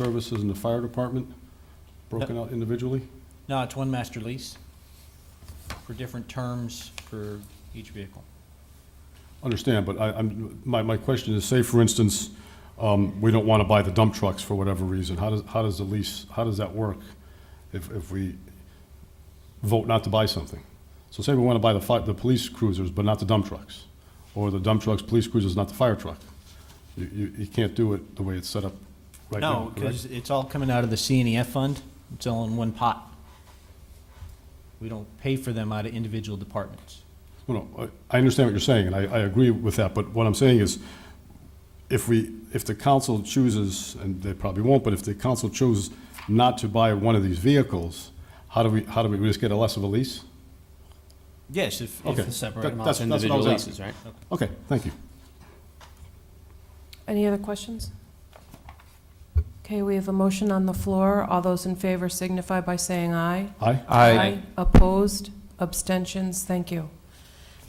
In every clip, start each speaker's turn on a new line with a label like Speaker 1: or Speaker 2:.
Speaker 1: services and the fire department broken out individually?
Speaker 2: No, it's one master lease for different terms for each vehicle.
Speaker 1: Understand, but I, I'm, my, my question is, say for instance, um, we don't want to buy the dump trucks for whatever reason, how does, how does the lease, how does that work if, if we vote not to buy something? So say we want to buy the fi, the police cruisers, but not the dump trucks, or the dump trucks, police cruisers, not the fire truck. You, you, you can't do it the way it's set up right now,
Speaker 2: No,
Speaker 1: correct?
Speaker 2: because it's all coming out of the CNEF fund. It's all in one pot. We don't pay for them out of individual departments.
Speaker 1: Well, no, I I understand what you're saying, and I, I agree with that, but what I'm saying is, if we, if the council chooses, and they probably won't, but if the council chooses not to buy one of these vehicles, how do we, how do we, we just get a less of a lease?
Speaker 2: Yes, if,
Speaker 1: Okay.
Speaker 2: if,
Speaker 1: That-
Speaker 3: Separate
Speaker 1: that's-
Speaker 3: them out
Speaker 1: that's
Speaker 3: to
Speaker 1: what I was
Speaker 3: individual
Speaker 1: asking.
Speaker 3: leases, right?
Speaker 1: Okay, thank you.
Speaker 4: Any other questions? Okay, we have a motion on the floor. All those in favor signify by saying aye.
Speaker 1: Aye?
Speaker 4: Opposed? Abstentions? Thank you.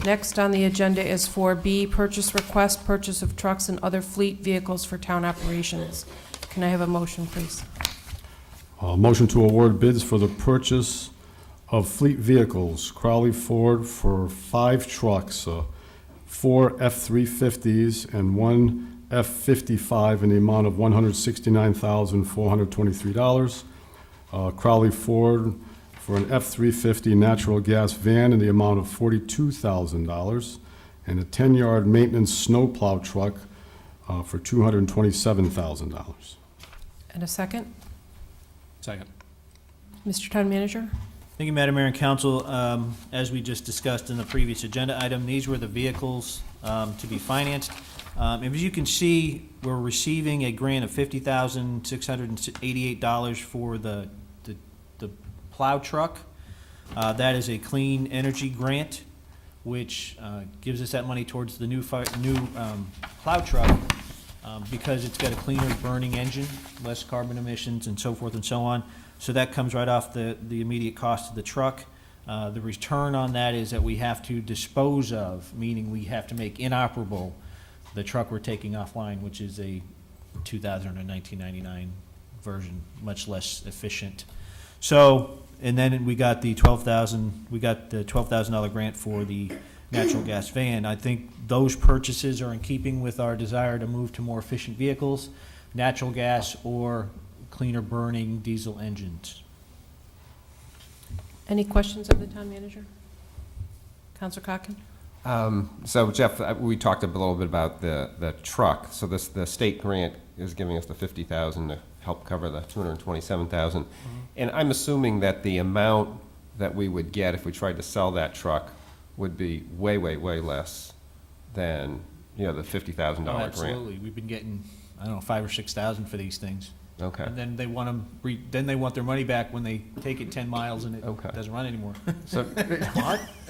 Speaker 4: Next on the agenda is 4B, purchase request, purchase of trucks and other fleet vehicles for town operations. Can I have a motion, please?
Speaker 1: Uh, motion to award bids for the purchase of fleet vehicles, Crowley Ford for five trucks, uh, four F-350s and one F-55 in the amount of $169,423. Uh, Crowley Ford for an F-350 natural gas van in the amount of $42,000. And a 10-yard maintenance snowplow truck uh, for $227,000.
Speaker 4: And a second?
Speaker 3: Second.
Speaker 4: Mr. Town Manager?
Speaker 2: Thank you, Madam Mayor and Council. Um, As we just discussed in the previous agenda item, these were the vehicles um, to be financed. Um, and As you can see, we're receiving a grant of fifty thousand, six hundred and eighty-eight dollars for the, the- the plow truck. Uh, That is a clean energy grant, which uh, gives us that money towards the new fi, new um, plow truck um, because it's got a cleaner burning engine, less carbon emissions and so forth and so on. So that comes right off the, the immediate cost of the truck. Uh, The return on that is that we have to dispose of, meaning we have to make inoperable the truck we're taking offline, which is a 2000 or 1999 version, much less efficient. So, and then we got the twelve thousand, we got the twelve thousand dollar grant for the natural gas van. I think those purchases are in keeping with our desire to move to more efficient vehicles, natural gas or cleaner burning diesel engines.
Speaker 4: Any questions of the Town Manager? Counselor Cocken?
Speaker 5: Um, So Jeff, uh, we talked a little bit about the, the truck. So this, the state grant is giving us the fifty thousand to help cover the two hundred and twenty-seven thousand.
Speaker 2: Mm-hmm.
Speaker 5: And I'm assuming that the amount that we would get if we tried to sell that truck would be way, way, way less than, you know, the fifty thousand
Speaker 2: Oh,
Speaker 5: dollar grant.
Speaker 2: Absolutely. We've been getting, I don't know, five or six thousand for these things.
Speaker 5: Okay,
Speaker 2: And then they want them, re- then they want their money back when they take it ten miles and
Speaker 5: Okay.
Speaker 2: it doesn't run anymore.
Speaker 5: so,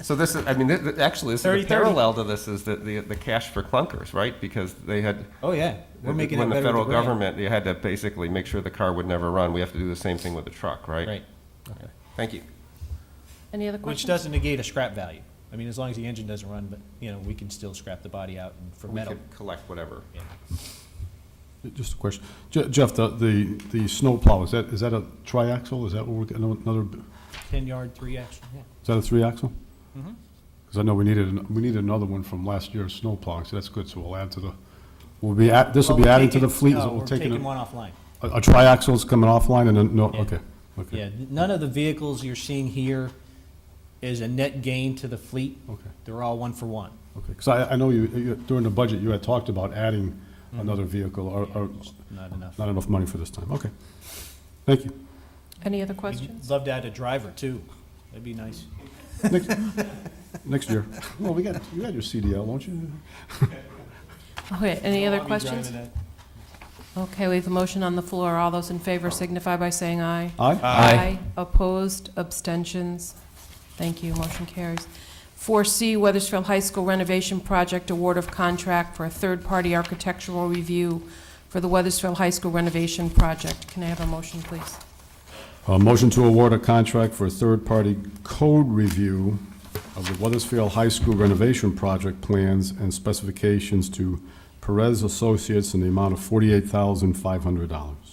Speaker 5: so this is, I mean, thi- thi- actually, this is
Speaker 2: 30, 30.
Speaker 5: the parallel to this is the, the, the cash for clunkers, right? Because they had,
Speaker 2: Oh, yeah. We're making it
Speaker 5: When
Speaker 2: better
Speaker 5: the
Speaker 2: with
Speaker 5: federal
Speaker 2: grant.
Speaker 5: government, you had to basically make sure the car would never run. We have to do the same thing with the truck, right?
Speaker 2: Right.
Speaker 5: Okay. Thank you.
Speaker 4: Any other
Speaker 2: Which
Speaker 4: questions?
Speaker 2: doesn't negate a scrap value. I mean, as long as the engine doesn't run, but, you know, we can still scrap the body out and for
Speaker 5: We
Speaker 2: metal.
Speaker 5: could collect whatever.
Speaker 2: Yeah.
Speaker 1: Just a question. Je- Jeff, the, the, the snowplow, is that, is that a triaxle? Is that what we're, getting? another,
Speaker 2: Ten yard, three action, yeah.
Speaker 1: is that a three-axle?
Speaker 2: Mhm.
Speaker 1: Because I know we needed, an- we needed another one from last year's snowplow, so that's good, so we'll add to the, we'll be, at- this will
Speaker 2: Well,
Speaker 1: be
Speaker 2: we're
Speaker 1: added to the
Speaker 2: taking-
Speaker 1: fleet. is
Speaker 2: No,
Speaker 1: it? We're
Speaker 2: we're
Speaker 1: taking
Speaker 2: taking
Speaker 1: a-
Speaker 2: one offline.
Speaker 1: A a triaxle's coming offline and then, no,
Speaker 2: Yeah.
Speaker 1: okay, okay,
Speaker 2: Yeah, n- none of the vehicles you're seeing here is a net gain to the fleet.
Speaker 1: okay,
Speaker 2: They're all one for one.
Speaker 1: okay. Because I, I know you, you- during the budget, you had talked about adding
Speaker 2: Mm-hmm.
Speaker 1: another vehicle, or, or
Speaker 2: Just Not enough.
Speaker 1: not enough money for this time, okay. Thank you.
Speaker 4: Any other
Speaker 2: We'd
Speaker 4: questions?
Speaker 2: Love to add a driver too. That'd be nice.
Speaker 1: Next year. Well, we got, you got your CDL, don't you?
Speaker 4: Okay, any other
Speaker 2: I'll be driving
Speaker 4: questions?
Speaker 2: that.
Speaker 4: Okay, we have a motion on the floor. All those in favor signify by saying aye.
Speaker 1: Aye?
Speaker 4: Aye. Opposed, abstentions? Thank you, motion carries. 4C, Weathersfield High School renovation project award of contract for a third-party architectural review for the Weathersfield High School renovation project. Can I have a motion, please?
Speaker 1: A motion to award a contract for a third-party code review of the Weathersfield High School renovation project plans and specifications to Perez Associates in the amount of forty-eight thousand five hundred dollars.